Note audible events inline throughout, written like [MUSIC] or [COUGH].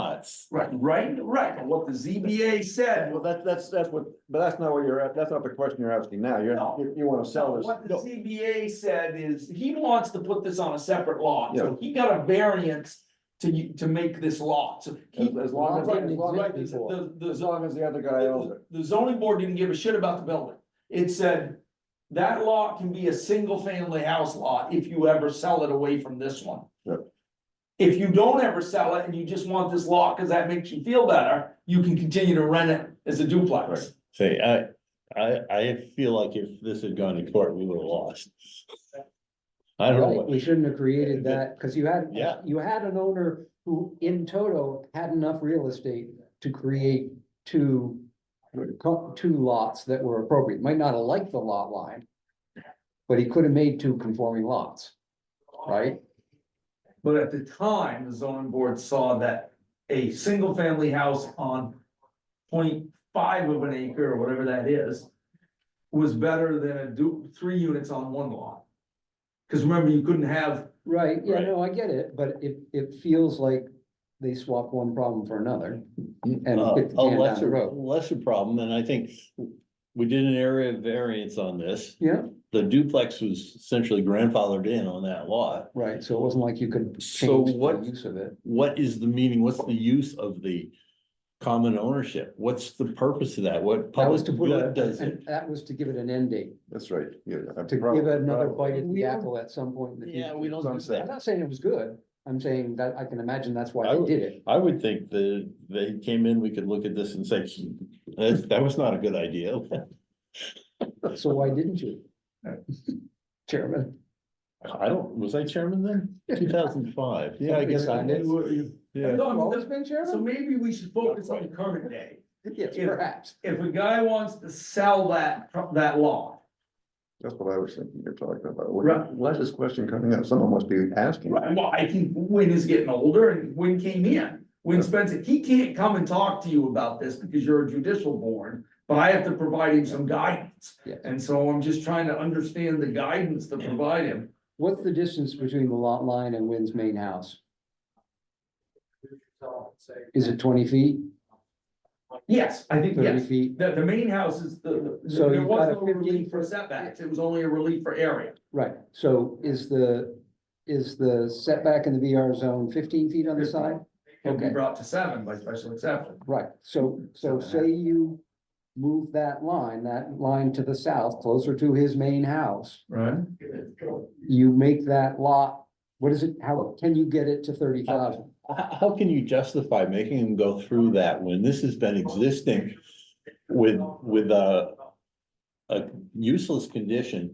lots. Right, right, right, but what the ZBA said, Well, that's, that's, that's what, but that's not what you're, that's not the question you're asking now. You're, No. you, you wanna sell this. what the No. ZBA said is, he wants to put this on a separate lot, Yeah. so he got a variance to, u- to make this lot, so. he- As, as long as, as long Right, as, the, the, as long as the other guy owns it. the- the zoning board didn't give a shit about the building, it said. That lot can be a single family house lot if you ever sell it away from this one. Yep. If you don't ever sell it and you just want this lot, cause that makes you feel better, you can continue to rent it as a duplex. Right. Say, I, I, I feel like if this had gone to court, we would have lost. I don't know, Right, what- we shouldn't have created that, because you had, Yeah. you had an owner who in toto had enough real estate to create two. co- Two lots that were appropriate, might not have liked the lot line. But he could have made two conforming lots, right? But at the time, the zoning board saw that a single family house on 0.5 of an acre or whatever that is. Was better than a du- three units on one lot. Cause remember, you couldn't have, Right, yeah, Right. no, I get it, but it, it feels like they swap one problem for another. And Uh, kick the a can down the lesser, road. lesser problem, and I think we did an area of variance on this. Yeah. The duplex was essentially grandfathered in on that lot. Right, so it wasn't like you could So change the what- use of it. What is the meaning? What's the use of the common ownership? What's the purpose of that? What That was public to put a, good does it? an- that was to give it an end date. That's right. Yeah. I to prob- give it another probably. bite at the We don't- apple at some point in the future. Yeah, we don't do Sunset. I'm that. not saying it was good, I'm saying that I can imagine that's why I they would- did it. I would think that they came in, we could look at this and say, that, that was not a good idea. So why didn't [LAUGHS] you? Chairman, I don't, was I chairman then? [LAUGHS] Two thousand five, yeah, I guess I Something was. Yeah, I've always been so chairman? maybe we should focus on the current day. [LAUGHS] Yes, Yeah. perhaps. If a guy wants to sell that, pro- that lot. That's what I was thinking you're talking about. Right. Why is this question coming up? Someone must be asking. Right, well, I think Win is getting older and Win came in. Win Spencer, he can't come and talk to you about this because you're a judicial board, but I have to provide him some guidance. Yes. And so I'm just trying to understand the guidance to provide him. What's the distance between the lot line and Wynn's main house? Is it twenty feet, Yes, I think, thirty yes, feet? the, the main house is the, the- So there you've was got a no relief 15 for setbacks, it was only a relief for area. Right, so is the, is the setback in the VR zone fifteen feet on the side? Can be Okay. brought to seven by special exception. Right, so, so say you move that line, that line to the south, closer to his main house. Right. You make that lot, what is it, how can you get it to thirty thousand? how, how can you justify making them go through that when this has been existing with, with uh, a, a useless condition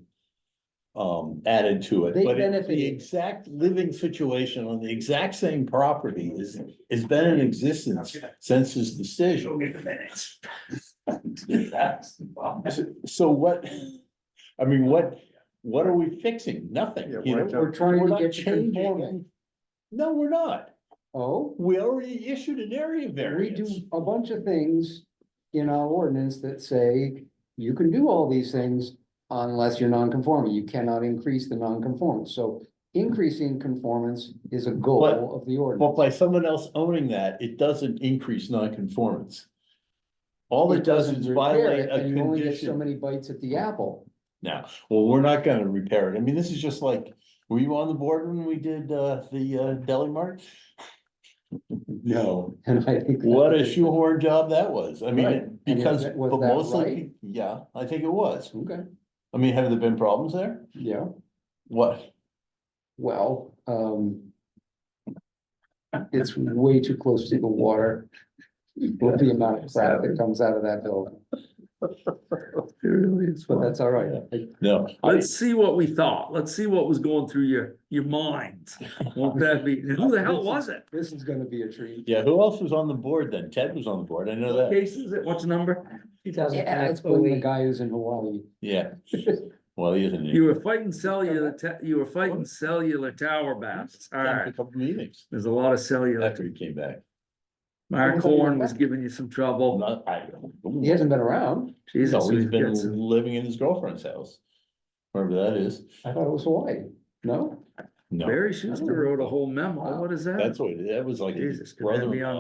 um, added to it, They but it- benefited. the exact living situation on the exact same property is, has been in existence since his decision. Show me the minutes. That's- So what, I mean, what, what are we fixing? Nothing, Yeah, you why know? don't- We're trying We're to not get you changing conforming. it. No, we're not. Oh, We already issued an area we do variance. a bunch of things in our ordinance that say you can do all these things unless you're non-conforming. You cannot increase the non-conformance. So increasing conformance is a But- goal of the ordinance. But by someone else owning that, it doesn't increase nonconformance. All it does is Doesn't repair violate it, a and you only get So condition. many bites at the apple. Now, well, we're not gonna repair it. I mean, this is just like, were you on the board when we did uh the uh deli mart? [LAUGHS] No, And I think. that- what a shoehorn job that was. I mean, Right. it- And is because, that- was but that mostly, right? yeah, I think it was. Okay, I mean, have there been problems there? yeah, What? well, um. It's way too close to the water. With the amount of crap that comes out of that building, but that's all right. No, I, Let's see what we thought. Let's see what was going through your, your minds. Won't that be, who the hell was it? This is gonna be a treat. yeah, who else was on the board then? Ted was on the board. I know that. Cases, it- what's the number? Yeah, it's when the guy who's in Hawaii. Yeah. Well, he isn't. You were fighting cellular, ta- you were fighting cellular tower bats. All A right, couple meetings there's a lot of cellular. after he came back. Mark Horn was giving you some trouble. Not, I. He hasn't been around. He's Jesus, always we've got been some- living in his girlfriend's house. Wherever that is. I thought it was Hawaii. No? No, Barry Schuster wrote a whole memo. What is that? that's what, that was like. his Jesus, could that be brother-in-law. on